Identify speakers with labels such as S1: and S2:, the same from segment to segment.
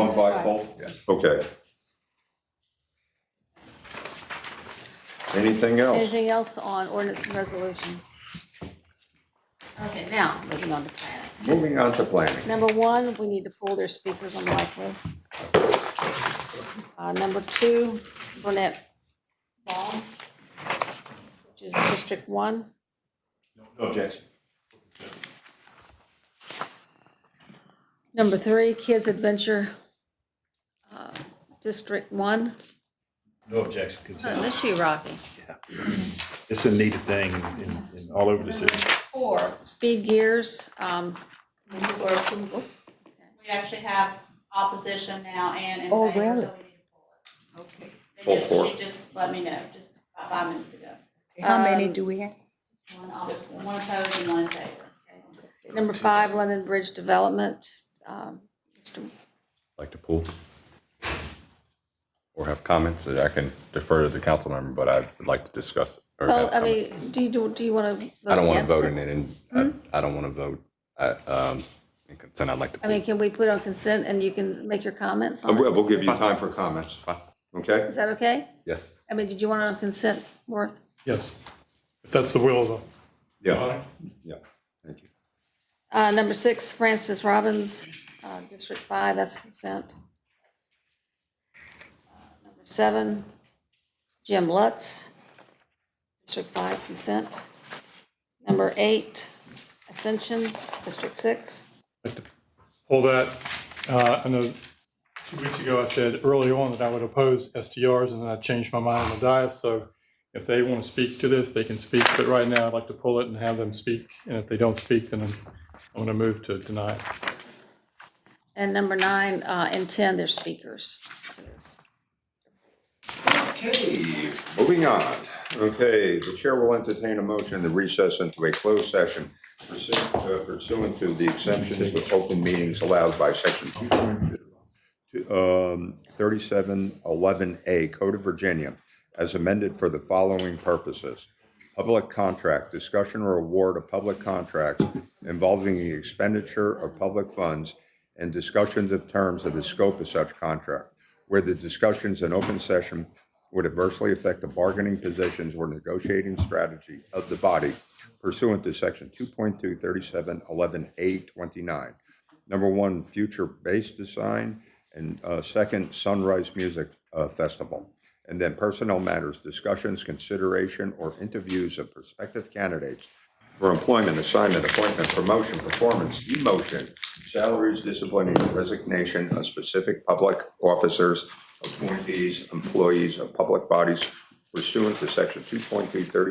S1: one flagpole?
S2: Yes.
S1: Okay. Anything else?
S3: Anything else on ordinance and resolutions? Okay, now, moving on to planning.
S1: Moving on to planning.
S3: Number one, we need to pull their speakers on the microphone. Uh, number two, Burnett Ball, which is District One.
S2: No objection.
S3: Number three, Kids Adventure, uh, District One.
S2: No objection,
S3: Oh,
S2: consent.
S3: Miss you, Rocky.
S2: It's a neat thing in, in, all over the city.
S4: four,
S3: Speed Gears, um,
S4: or approval. We actually have opposition now and in favor.
S5: Oh,
S4: so we
S5: really?
S4: need to pull it.
S1: Pull
S4: They just,
S1: four.
S4: she just let me know, just about five minutes ago.
S5: How many
S3: Um,
S5: do we have?
S4: One opposite, one opposed and one in favor.
S3: number five, London Bridge Development, um, Mr.
S6: like to pull? Or have comments that I can defer to the council member, but I would like to discuss. it or
S3: Well,
S6: have
S3: I
S6: comments.
S3: mean, Mm-hmm. do you, do do you want to?
S6: I don't want to vote in it and I, I don't want to vote, uh, um, in consent, I'd like to
S3: I
S6: pull.
S3: mean, can we put on consent and you can make your comments
S1: Uh,
S3: on
S1: We'll,
S3: it?
S1: we'll give you time for comments,
S6: Fine.
S1: okay?
S3: Is that okay?
S6: Yes.
S3: I mean, did you want it on consent, Worth?
S7: Yes, if that's the will of the.
S1: Yeah, yeah, thank you.
S3: Uh, number six, Francis Robbins, uh, District Five, that's consent. Number seven, Jim Lutz, District Five, consent. Number eight, Ascensions, District Six.
S7: like to pull that. Uh, I know two weeks ago I said early on that I would oppose STRs, and then I changed my mind on the dais. So if they want to speak to this, they can speak. But right now, I'd like to pull it and have them speak. And if they don't speak, then I'm, I'm going to move to deny it.
S3: And number nine, uh, and ten, they're speakers.
S1: Okay, moving on. Okay, the chair will entertain a motion to recess into a closed session pursuant uh, pursuant to the exemptions of open meetings allowed by section two um, 3711A Code of Virginia as amended for the following purposes. Public contract, discussion or award of public contracts involving the expenditure of public funds and discussions of terms of the scope of such contract, where the discussions in open session would adversely affect the bargaining positions or negotiating strategy of the body pursuant to section 2.2 3711A 29 number one, Future Bass Design, and uh, second, Sunrise Music uh, Festival. And then personnel matters, discussions, consideration, or interviews of prospective candidates for employment, assignment, appointment, promotion, performance, demotion, salaries, discipline, resignation of specific public officers, appointees, employees of public bodies pursuant to section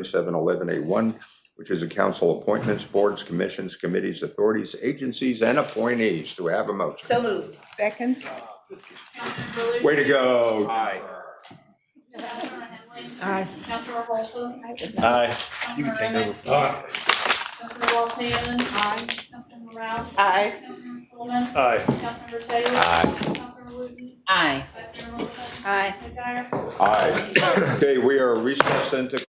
S1: 2.23711A1, which is a council appointments, boards, commissions, committees, authorities, agencies, and appointees. Do I have a motion?
S5: So moved. Second?
S4: Councilman
S1: Way to go. Aye.
S4: Baloo? Councilman Henley? Councilman Holton?
S2: Aye.
S4: You can take over. Councilman Walton? Aye. Councilman Rouse?
S5: Aye.
S4: Councilman Coleman?
S2: Aye.
S4: Councilmember Taylor? Aye. Councilman Wooten?
S5: Aye.
S4: Vice Mayor Wilson?
S3: Aye.
S4: McGuire?
S1: Aye. Okay, we are recessed into